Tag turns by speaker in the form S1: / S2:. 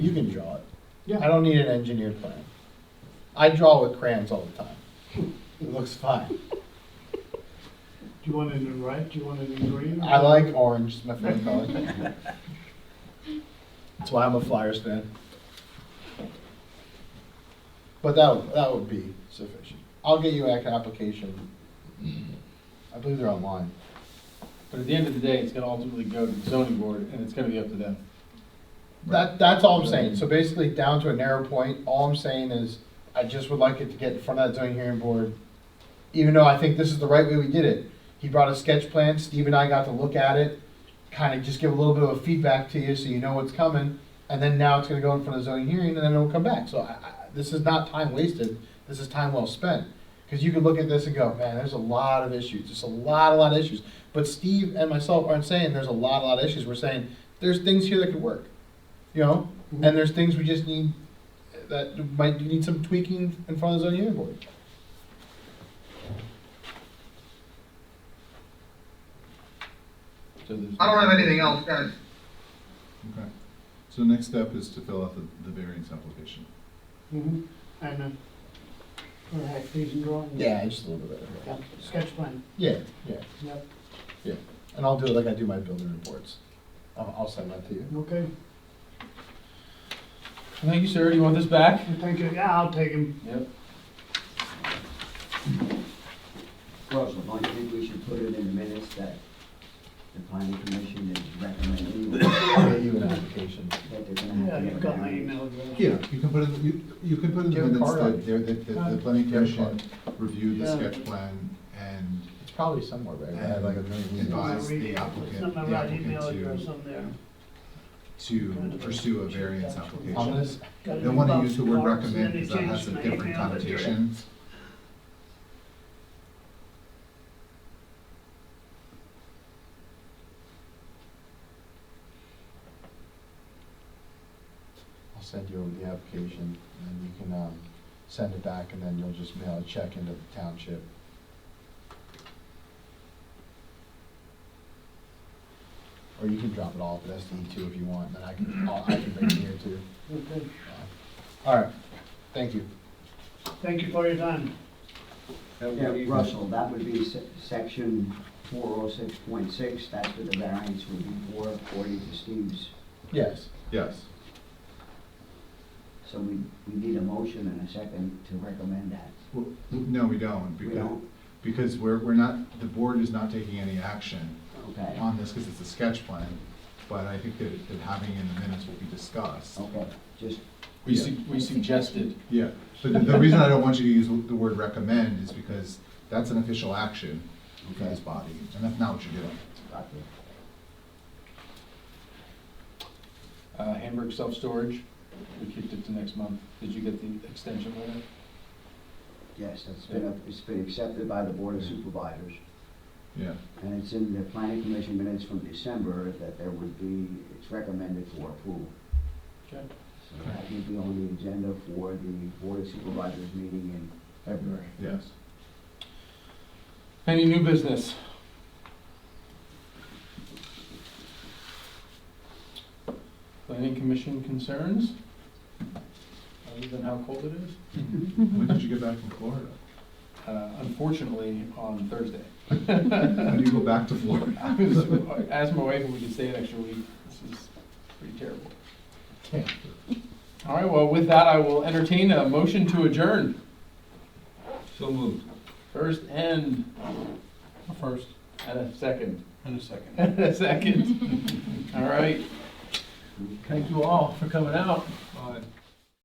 S1: You can draw it. I
S2: Yeah,
S1: don't need an engineered plan. I draw with crayons all the time. It looks fine.
S2: do you want it in red, do you want it in green?
S1: I like orange, it's my favorite color. That's why I'm a Flyers fan. But that, would- that would be sufficient. I'll get you an application. I believe they're online.
S3: But at the end of the day, it's gonna ultimately go to the zoning board, and it's gonna be up to them.
S1: That, that's all I'm saying. So basically, down to a narrow point, all I'm saying is, I just would like it to get in front of that zoning hearing board. Even though I think this is the right way we did it. He brought a sketch plan, Steve and I got to look at it, kind of just give a little bit of a feedback to you so you know what's coming. And then now it's gonna go in front of zoning hearing, and then it'll come back. So I, I, this is not time wasted, this is time well spent. Because you could look at this and go, man, there's a lot of issues, just a lot, a lot of issues. But Steve and myself aren't saying there's a lot, a lot of issues. We're saying, there's things here that could work you know,
S2: Mm-hmm.
S1: and there's things we just need that might need some tweaking in front of the zoning hearing board.
S3: So there's-
S4: I don't have anything else, guys.
S5: Okay. So next step is to fill out the, the variance application.
S2: Mhm. And, uh, all right, these and drawings.
S1: Yeah, just a little bit better.
S2: Yeah, Sketch plan,
S1: Yeah, yeah,
S2: yep,
S1: and I'll do it like I do my building reports. I'll, I'll send that to you.
S2: okay,
S3: Thank you, sir, do you want this back?
S2: I think, uh, yeah, I'll take him,
S3: Yep.
S6: Russell, don't you think we should put it in the minutes that the planning commission is recommending that
S1: I'll get you an application.
S6: they're gonna have to
S2: yeah,
S6: have a
S2: you've got my
S6: variance?
S2: email address.
S5: Yeah, you can put in, you, you can put in the
S1: Give a
S5: minutes
S1: card
S5: that,
S1: out.
S5: they're- that, that the planning
S1: Give a
S5: commission
S1: card.
S5: reviewed the
S2: Yeah.
S5: sketch plan and,
S1: It's probably somewhere, right? I had like a million
S2: It's not
S1: emails.
S2: my
S5: advise the
S2: re-
S5: applicant-
S2: It's not my
S5: the
S2: right
S5: applicant
S2: email
S5: to-
S2: address on there.
S5: to pursue a variance
S1: I'm
S5: application.
S1: gonna, s-
S2: Got it
S5: They
S2: in
S5: wanna
S2: box
S5: use the word
S2: cards, and
S5: recommend
S2: then
S5: because
S2: they
S5: that
S2: changed
S5: has a
S2: my
S5: different
S2: email address.
S5: connotation.
S1: I'll send you the application and you can, um, send it back and then you'll just mail a check into the township. Or you can drop it off at SD two if you want, then I can, I'll- I can bring it here too.
S2: Okay.
S1: All right, thank you.
S2: Thank you for your time.
S6: Yeah, Russell, that would be se- section four oh six point six, that's what the variance would be for, according to Steve's.
S1: Yes,
S5: Yes,
S6: So we, we need a motion and a second to recommend that.
S5: W- no, we don't,
S6: We
S5: because,
S6: don't,
S5: because we're, we're not, the board is not taking any action
S6: okay,
S5: on this because it's a sketch plan, but I think that, that having it in the minutes will be discussed.
S6: okay, just,
S3: We su- we suggested,
S5: Yeah, but the- the reason I don't want you to use the word recommend is because that's an official action for this body, and that's not what you're doing.
S6: got it.
S3: uh, Hamburg self-storage, we kicked it to next month. Did you get the extension letter?
S6: yes, it's been, it's been accepted by the board of supervisors.
S5: Yeah,
S6: And it's in the planning commission minutes from December that there would be, it's recommended for approval.
S3: Okay.
S6: So that will be on the agenda for the board of supervisors meeting in February.
S5: yes.
S3: Any new business? Planning commission concerns? Other than how cold it is?
S5: When did you get back from Florida?
S3: Uh, Unfortunately, on Thursday.
S5: When do you go back to Florida?
S3: I was- I Asked my wife if we could stay an extra week. This is pretty terrible. All right, well, with that, I will entertain a motion to adjourn.
S7: So moved.
S3: First and,
S7: First.
S3: and a second,
S7: And a second.
S3: and a second. All right. Thank you all for coming out.